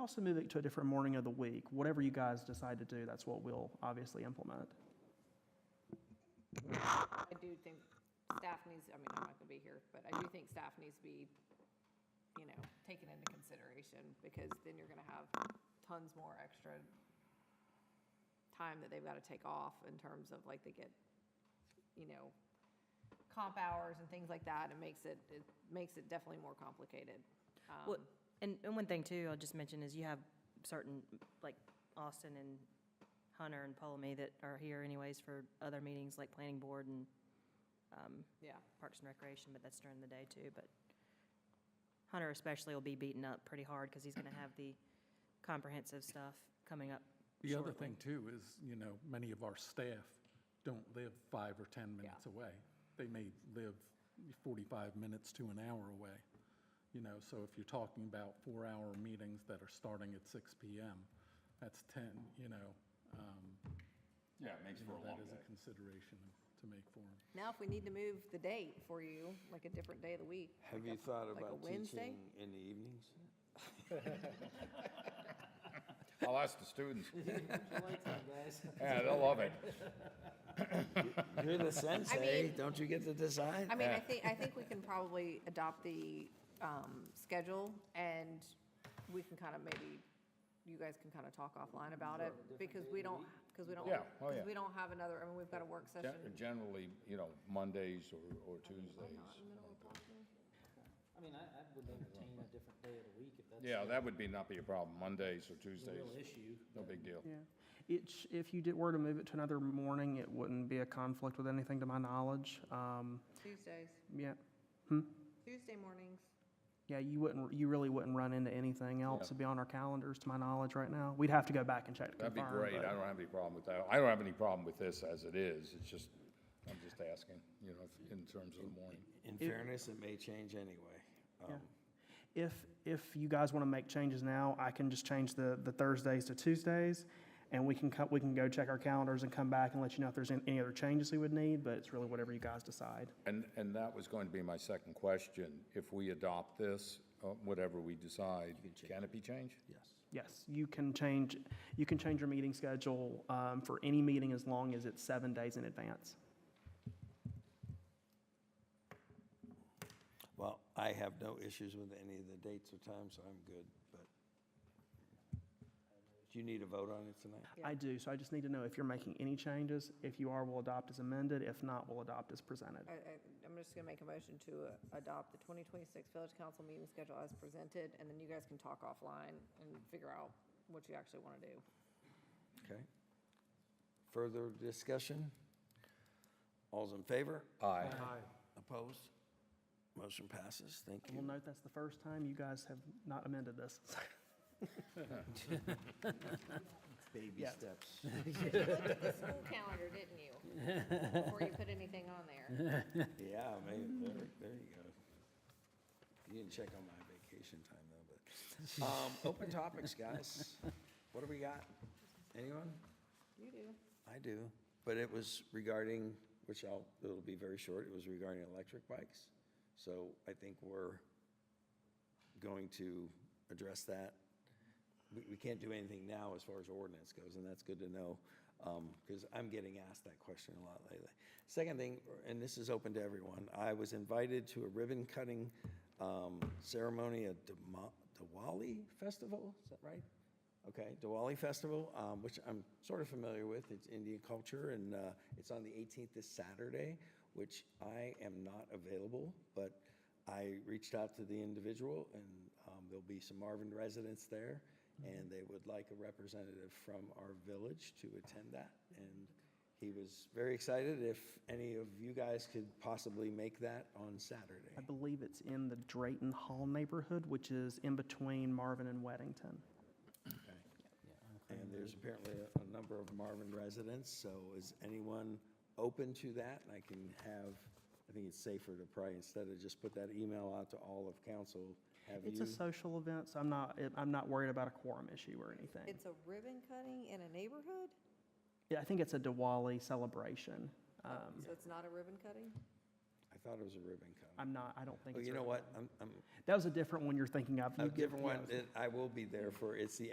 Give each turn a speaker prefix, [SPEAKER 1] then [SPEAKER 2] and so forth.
[SPEAKER 1] Also move it to a different morning of the week. Whatever you guys decide to do, that's what we'll obviously implement.
[SPEAKER 2] I do think staff needs, I mean, I'm not going to be here, but I do think staff needs to be, you know, taken into consideration, because then you're going to have tons more extra time that they've got to take off in terms of, like, they get, you know, comp hours and things like that, and makes it, it makes it definitely more complicated. Um,
[SPEAKER 3] Well, and, and one thing too, I'll just mention is you have certain, like Austin and Hunter and Ptolemy that are here anyways for other meetings like planning board and um,
[SPEAKER 2] Yeah,
[SPEAKER 3] Parks and Recreation, but that's during the day too, but Hunter especially will be beaten up pretty hard because he's going to have the comprehensive stuff coming up
[SPEAKER 4] The other
[SPEAKER 3] shortly.
[SPEAKER 4] thing too is, you know, many of our staff don't live five or 10 minutes
[SPEAKER 2] Yeah.
[SPEAKER 4] away. They may live 45 minutes to an hour away, you know, so if you're talking about four-hour meetings that are starting at 6 PM, that's 10, you know, um,
[SPEAKER 5] Yeah, it makes
[SPEAKER 4] you
[SPEAKER 5] for a
[SPEAKER 4] know,
[SPEAKER 5] long
[SPEAKER 4] that is
[SPEAKER 5] day.
[SPEAKER 4] a consideration to make for them.
[SPEAKER 2] now if we need to move the date for you, like a different day of the week.
[SPEAKER 6] Have
[SPEAKER 2] like
[SPEAKER 6] you
[SPEAKER 2] a-
[SPEAKER 6] thought
[SPEAKER 2] like a
[SPEAKER 6] about
[SPEAKER 2] Wednesday?
[SPEAKER 6] teaching in the evenings?
[SPEAKER 5] I'll ask the students. Yeah, they'll love it.
[SPEAKER 6] You're the sensei,
[SPEAKER 2] mean-
[SPEAKER 6] don't you get
[SPEAKER 2] I
[SPEAKER 6] to decide?
[SPEAKER 2] mean, I think, I think we can probably adopt the um, schedule, and we can kind of maybe, you guys can kind of talk offline about it, because we don't, because we don't,
[SPEAKER 5] Yeah, oh, yeah.
[SPEAKER 2] because we don't have another, I mean, we've got a work
[SPEAKER 5] Gen-
[SPEAKER 2] session.
[SPEAKER 5] Generally, you know, Mondays or, or Tuesdays.
[SPEAKER 7] I mean, I, I would entertain a different day of the week if that's.
[SPEAKER 5] Yeah, that would be, not be a problem, Mondays
[SPEAKER 7] a
[SPEAKER 5] or
[SPEAKER 7] real
[SPEAKER 5] Tuesdays,
[SPEAKER 7] issue.
[SPEAKER 5] no big deal.
[SPEAKER 1] Yeah. It, sh- if you did, were to move it to another morning, it wouldn't be a conflict with anything to my knowledge. Um,
[SPEAKER 2] Tuesdays,
[SPEAKER 1] yeah.
[SPEAKER 2] Tuesday mornings.
[SPEAKER 1] Yeah, you wouldn't, you really wouldn't run into anything else to be on our calendars, to my knowledge, right now. We'd have to go back and check to confirm.
[SPEAKER 5] That'd be great,
[SPEAKER 1] but-
[SPEAKER 5] I don't have any problem with that. I don't have any problem with this as it is, it's just, I'm just asking, you know, if- in terms of the morning.
[SPEAKER 6] In fairness, it may change anyway. Um,
[SPEAKER 1] Yeah. If, if you guys want to make changes now, I can just change the, the Thursdays to Tuesdays, and we can, co- we can go check our calendars and come back and let you know if there's an- any other changes we would need, but it's really whatever you guys decide.
[SPEAKER 5] And, and that was going to be my second question. If we adopt this, uh, whatever we decide, can it be changed?
[SPEAKER 6] Yes.
[SPEAKER 1] Yes, you can change, you can change your meeting schedule um, for any meeting as long as it's seven days in advance.
[SPEAKER 6] Well, I have no issues with any of the dates or times, so I'm good, but. Do you need a vote on it tonight?
[SPEAKER 1] I do, so I just need to know if you're making any changes. If you are, we'll adopt as amended. If not, we'll adopt as presented.
[SPEAKER 2] I, I, I'm just gonna make a motion to uh, adopt the 2026 Village Council meeting schedule as presented, and then you guys can talk offline and figure out what you actually want to do.
[SPEAKER 6] Okay. Further discussion? All's in favor?
[SPEAKER 5] Aye.
[SPEAKER 6] Opposed? Motion passes. Thank
[SPEAKER 1] We'll
[SPEAKER 6] you.
[SPEAKER 1] note that's the first time you guys have not amended this.
[SPEAKER 6] Baby
[SPEAKER 1] Yeah.
[SPEAKER 6] steps.
[SPEAKER 2] School calendar, didn't you? Before you put anything on there.
[SPEAKER 6] Yeah, man, there, there you go. You didn't check on my vacation time though, but, um, open topics, guys. What do we got? Anyone?
[SPEAKER 2] You do.
[SPEAKER 6] I do, but it was regarding, which I'll, it'll be very short, it was regarding electric bikes. So I think we're going to address that. We, we can't do anything now as far as ordinance goes, and that's good to know, because I'm getting asked that question a lot lately. Second thing, and this is open to everyone, I was invited to a ribbon cutting um, ceremony at Demo- Diwali Festival, is that right? Okay, Diwali Festival, um, which I'm sort of familiar with, it's Indian culture, and uh, it's on the 18th this Saturday, which I am not available, but I reached out to the individual, and um, there'll be some Marvin residents there,
[SPEAKER 1] Mm-hmm.
[SPEAKER 6] and they would like a representative from our village to attend that. And he was very excited if any of you guys could possibly make that on Saturday.
[SPEAKER 1] I believe it's in the Drayton Hall neighborhood, which is in between Marvin and Weddington.
[SPEAKER 6] And there's apparently a- a number of Marvin residents, so is anyone open to that? And I can have, I think it's safer to probably, instead of just put that email out to all of council, have
[SPEAKER 1] It's a
[SPEAKER 6] you?
[SPEAKER 1] social event, so I'm not, I'm not worried about a quorum issue or anything.
[SPEAKER 2] It's a ribbon cutting in a neighborhood?
[SPEAKER 1] Yeah, I think it's a Diwali celebration. Um,
[SPEAKER 2] So it's not a ribbon cutting?
[SPEAKER 6] I thought it was a ribbon cutting.
[SPEAKER 1] I'm not, I don't think
[SPEAKER 6] Well,
[SPEAKER 1] it's.
[SPEAKER 6] you know
[SPEAKER 1] written.
[SPEAKER 6] what? I'm, I'm,
[SPEAKER 1] That was a different one you're thinking of.
[SPEAKER 6] a
[SPEAKER 1] You-
[SPEAKER 6] different
[SPEAKER 1] yeah,
[SPEAKER 6] one that I will be there for. It's the